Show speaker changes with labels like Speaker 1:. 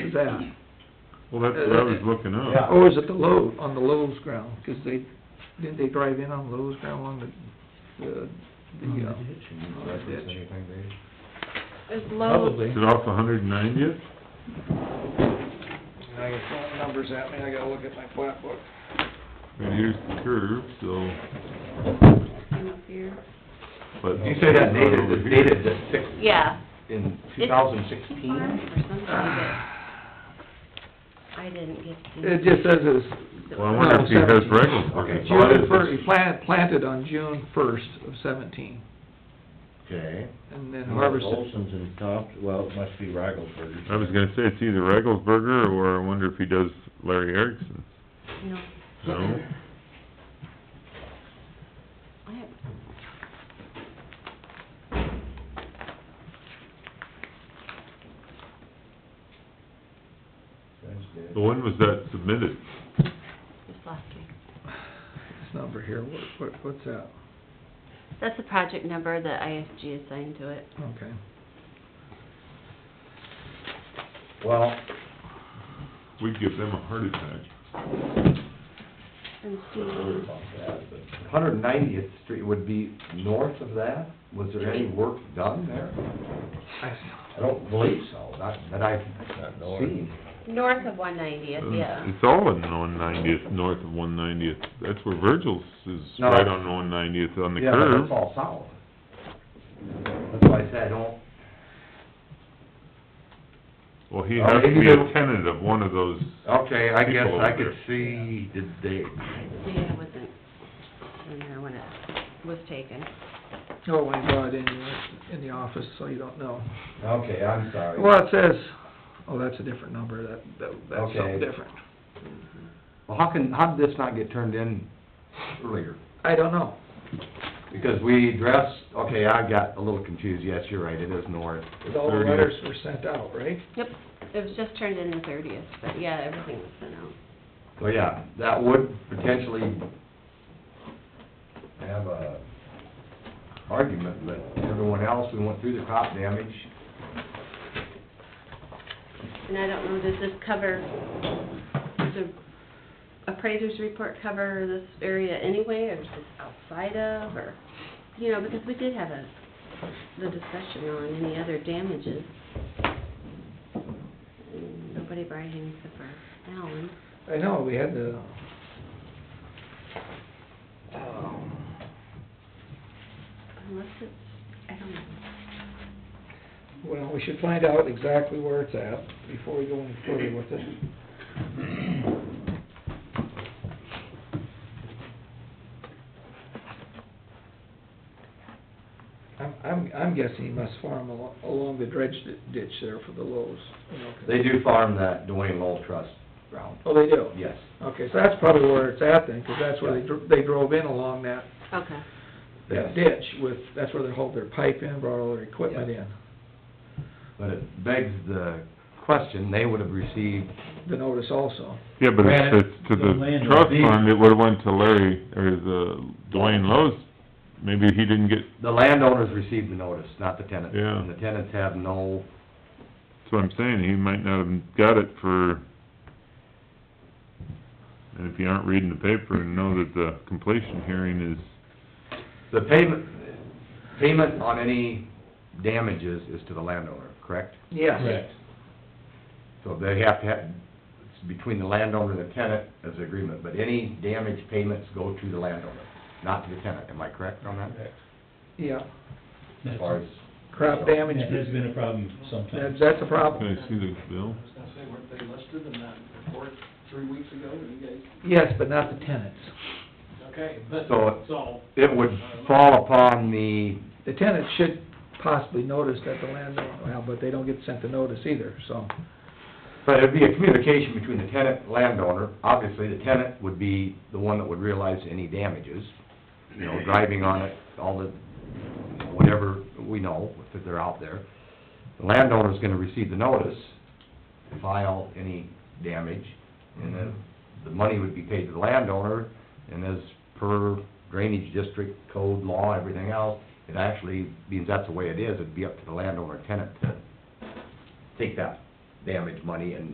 Speaker 1: leave that.
Speaker 2: Well, that's what I was looking
Speaker 3: Yeah.
Speaker 2: up.
Speaker 1: Or is it the Lowe, on the Lowe's ground? Because they, didn't they drive in on Lowe's ground along the, the, the, uh,
Speaker 3: Reference anything, Dave?
Speaker 4: Is Lowe's,
Speaker 1: probably.
Speaker 2: Is it off a hundred and ninetieth?
Speaker 1: I got phone numbers at me, I gotta look at my flat book.
Speaker 2: And here's the curve, so,
Speaker 4: here?
Speaker 5: Oh.
Speaker 2: but.
Speaker 3: You say that dated,
Speaker 2: Over
Speaker 3: it's
Speaker 2: here.
Speaker 3: dated to six,
Speaker 4: Yeah.
Speaker 3: in two
Speaker 4: It's-
Speaker 3: thousand
Speaker 4: Or
Speaker 3: sixteen?
Speaker 4: something, but I didn't get to.
Speaker 1: It just says it's,
Speaker 2: Well, I wonder if he has
Speaker 1: No,
Speaker 3: Okay.
Speaker 2: regular.
Speaker 3: So it
Speaker 1: June
Speaker 3: is-
Speaker 1: first, he planted, planted on June first of seventeen,
Speaker 5: Okay.
Speaker 1: and then harvested.
Speaker 5: Olson's in top, well, it must be Raglesburg.
Speaker 2: I was gonna say it's either Regalsberger or I wonder if he does Larry Erickson.
Speaker 4: No.
Speaker 2: No?
Speaker 4: I have-
Speaker 5: That's good.
Speaker 2: So when was that submitted?
Speaker 4: Just last week.
Speaker 1: This number here, what, what, what's that?
Speaker 4: That's the project number that ISG assigned to it.
Speaker 1: Okay.
Speaker 5: Well,
Speaker 2: We'd give them a heart attack.
Speaker 4: And
Speaker 5: I wonder
Speaker 4: see,
Speaker 5: about that, but
Speaker 3: Hundred ninetieth street would be north of that? Was there any work done there?
Speaker 1: I,
Speaker 5: I
Speaker 3: I don't believe so, not, that I've
Speaker 5: Not north.
Speaker 3: seen.
Speaker 4: north of one
Speaker 2: Oh,
Speaker 4: ninetieth, yeah.
Speaker 2: Uh, It's all in one ninetieth, north of one ninetieth. That's where Virgil's is,
Speaker 3: No.
Speaker 2: right on one ninetieth on the
Speaker 3: Yeah, but
Speaker 2: curve.
Speaker 3: that's all south. That's why I said I don't,
Speaker 2: Well, he
Speaker 3: Oh,
Speaker 2: has to
Speaker 3: maybe
Speaker 2: be a
Speaker 3: they-
Speaker 2: tenant of one of those,
Speaker 3: okay, I guess
Speaker 2: People
Speaker 3: I
Speaker 2: over
Speaker 3: could
Speaker 2: there.
Speaker 3: see, did they,
Speaker 4: See, I wasn't in there when it was taken.
Speaker 1: oh, I brought it in, in the office, so you don't know.
Speaker 3: okay, I'm sorry.
Speaker 1: Well, it says, oh, that's a different number, that, that, that's
Speaker 3: Okay.
Speaker 1: something different.
Speaker 3: Well, how can, how did this not get turned in earlier?
Speaker 1: I don't know.
Speaker 3: Because we addressed, okay, I got a little confused, yes, you're right, it is north.
Speaker 1: All the
Speaker 2: Thirty.
Speaker 1: letters were sent out, right?
Speaker 4: Yep, it was just turned in the thirtieth, but yeah, everything was sent out.
Speaker 3: So, yeah, that would potentially have a argument, but everyone else, we went through the crop damage.
Speaker 4: And I don't know, does this cover, does the appraiser's report cover this area anyway, or is this outside of, or, you know, because we did have a, the discussion on any other damages. Nobody brought anything except for Alan.
Speaker 1: I know, we had the, um,
Speaker 4: Unless it's, I don't know.
Speaker 1: well, we should find out exactly where it's at before we go any further with it. I'm, I'm, I'm guessing he must farm along, along the dredge di- ditch there for the lows, you know. 'cause-
Speaker 3: They do farm that Dwayne Lowell Trust ground,
Speaker 1: Oh, they do?
Speaker 3: yes.
Speaker 1: Okay, so that's probably where it's at then, 'cause that's where they, dr- they drove in along that
Speaker 4: Okay.
Speaker 1: that ditch with, that's where they hauled their pipe in, brought all their equipment in,
Speaker 3: But it begs the question, they would have received,
Speaker 1: the notice also.
Speaker 2: yeah, but if
Speaker 3: Granted,
Speaker 2: it's to
Speaker 5: the
Speaker 2: the
Speaker 5: land
Speaker 2: trust
Speaker 3: deed-
Speaker 2: fund, it would've went to Larry, or the Dwayne Lowe's. Maybe he didn't get,
Speaker 3: the landowners received the notice, not the tenants.
Speaker 2: Yeah.
Speaker 3: And the tenants have no,
Speaker 2: that's what I'm saying, he might not have got it for... And if you aren't reading the paper and know that the completion hearing is,
Speaker 3: the payment, payment on any damages is to the landowner, correct?
Speaker 1: Yes.
Speaker 3: So they have to have, it's between the landowner and the tenant as an agreement, but any damage payments go to the landowner, not to the tenant. Am I correct on that?
Speaker 1: Yeah,
Speaker 3: As far as,
Speaker 1: crop damage,
Speaker 6: That has been a problem
Speaker 1: that's,
Speaker 6: sometimes.
Speaker 1: that's a problem.
Speaker 2: can I see the bill?
Speaker 7: I was gonna say, weren't they listed in that report three weeks ago, that you guys,
Speaker 1: Yes, but not the tenants.
Speaker 7: okay, but,
Speaker 3: So-
Speaker 7: so,
Speaker 3: it would fall upon the,
Speaker 1: The tenants should possibly notice that the landowner, well, but they don't get sent the notice either, so.
Speaker 3: but it'd be a communication between the tenant and landowner. Obviously, the tenant would be the one that would realize any damages, you know, driving on it, all the, whatever we know, if they're out there. The landowner's gonna receive the notice, file any damage, and then the money would be paid to the landowner, and as per drainage district code law, everything else, it actually, means that's the way it is, it'd be up to the landowner tenant to take that damage money and